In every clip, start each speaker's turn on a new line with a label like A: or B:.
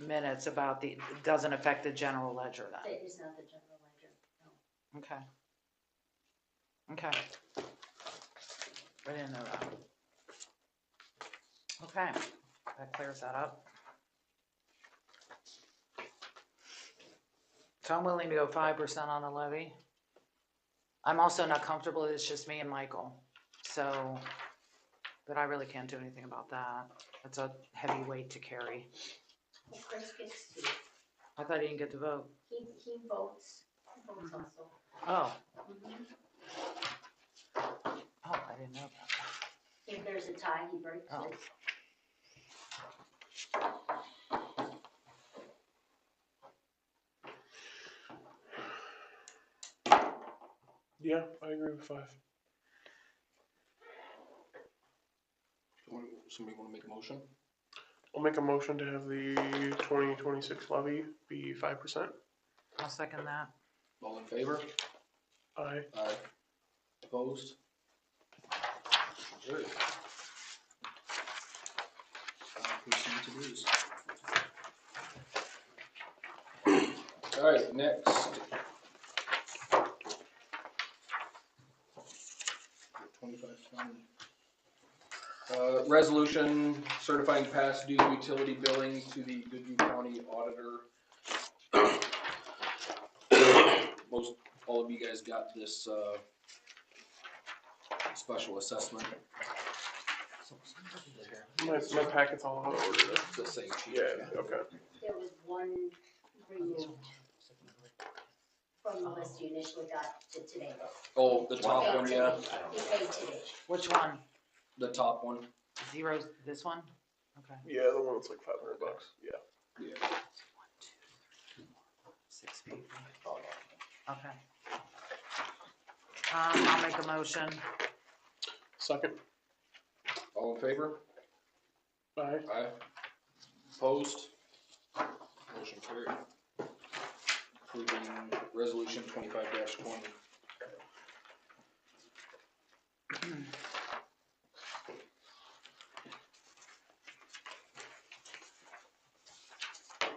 A: minutes about the, it doesn't affect the general ledger then?
B: It is not the general ledger, no.
A: Okay. Okay. I didn't know that. Okay, that clears that up. So I'm willing to go five percent on the levy. I'm also not comfortable, it's just me and Michael, so, but I really can't do anything about that. That's a heavy weight to carry.
B: Well, Chris gets to,
A: I thought he didn't get to vote.
B: he, he votes, he votes also.
A: Oh,
B: Mhm.
A: oh, I didn't know that.
B: If there's a tie, he breaks
A: Oh.
B: it.
C: Yeah, I agree with five.
D: Someone- Somebody wanna make a motion?
C: I'll make a motion to have the twenty twenty-six levy be five percent.
A: I'll second that.
D: All in favor?
C: Aye.
D: Aye. Opposed? Carried. Five percent to lose. Alright, next. Twenty-five, twenty. Uh, resolution certifying past due utility billing to the Goodview County Auditor. Most all of you guys got this, uh, special assessment,
C: My, my packet's all out of order.
D: It's the same sheet.
C: Yeah, okay.
B: There was one removed from the list you initially got to today.
D: Oh, the top
B: Paid
D: one, yeah,
B: today. You paid today.
A: Which one?
D: the top one,
A: Zero, this one? Okay.
C: Yeah, the one that's like five hundred bucks. Yeah.
D: yeah.
A: Six people. Okay. Um, I'll make a motion.
C: Second.
D: All in favor?
C: Aye.
D: Aye. Opposed? Motion carried. Approving resolution twenty-five twenty. Uh,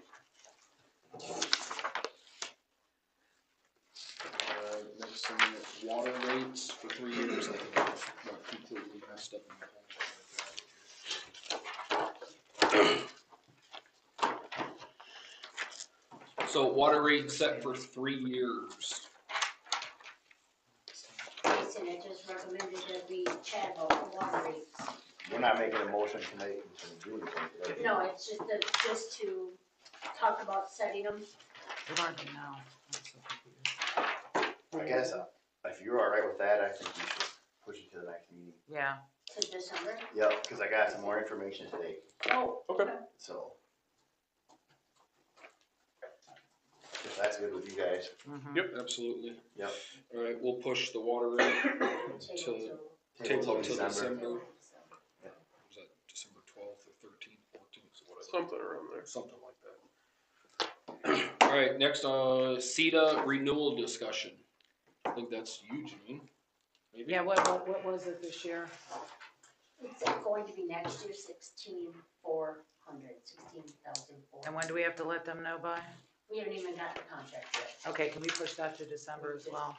D: Next thing, water rates for three years, I think, got completely messed up. in the whole- So water rate set for three years.
B: Jason had just recommended that we chat about the water rates.
E: We're not making a motion tonight until June. right?
B: No, it's just that, just to talk about setting them.
A: We've already now. I'm so confused.
E: I guess, uh, if you're all right with that, I think we should push it to the next meeting.
A: Yeah,
B: to December.
E: Yep, because I got some more information today,
B: Oh,
C: Okay.
E: so. If that's good with you guys,
A: mhm.
D: Absolutely.
E: Yep.
D: Alright, we'll push the water rate,
B: Until
D: table
E: table
D: up till
E: till December.
D: December,
B: So,
D: was that December twelfth or thirteenth, fourteenth, whatever,
C: Something around there.
D: something like that. Alright, next, uh, CETA renewal discussion. I think that's you, Janine. Maybe?
A: Yeah, what, what, what was it this year?
B: It's going to be next year sixteen four hundred, sixteen thousand four.
A: And when do we have to let them know by?
B: We haven't even got the contract yet. Mm-hmm.
A: Okay, can we push that to December as well?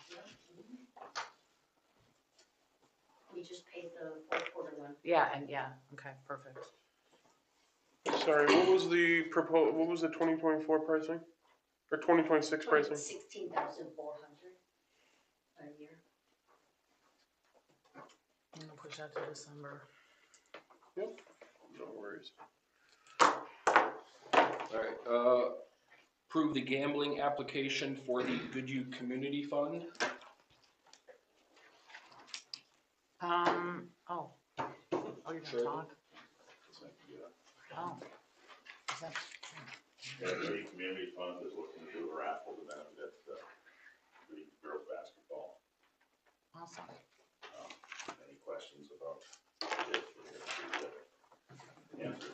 B: We just paid the fourth quarter one.
A: Yeah, and yeah, okay, perfect.
C: Sorry, what was the propo, what was the twenty twenty-four pricing? Or twenty twenty-six pricing?
B: Sixteen thousand four hundred a year.
A: I'm gonna push that to December.
C: No worries.
D: Alright, uh, approve the gambling application for the Goodhue Community Fund.
A: Um, oh, oh, you're
D: Sure.
A: gonna talk? Oh. Is that-
F: Yeah, the community fund is looking to do a raffle to benefit the, the girls' basketball.
A: Awesome.
F: Any questions about this? We're gonna do the answer.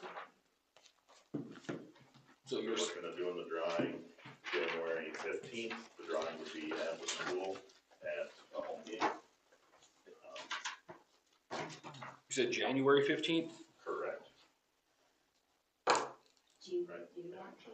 D: So
F: We're
D: you're, s-
F: looking at doing the drawing January fifteenth. The drawing would be at the school at a home game. Um,
D: you said January fifteenth?
F: Correct.
B: Do you,
F: Right.
B: do you want to?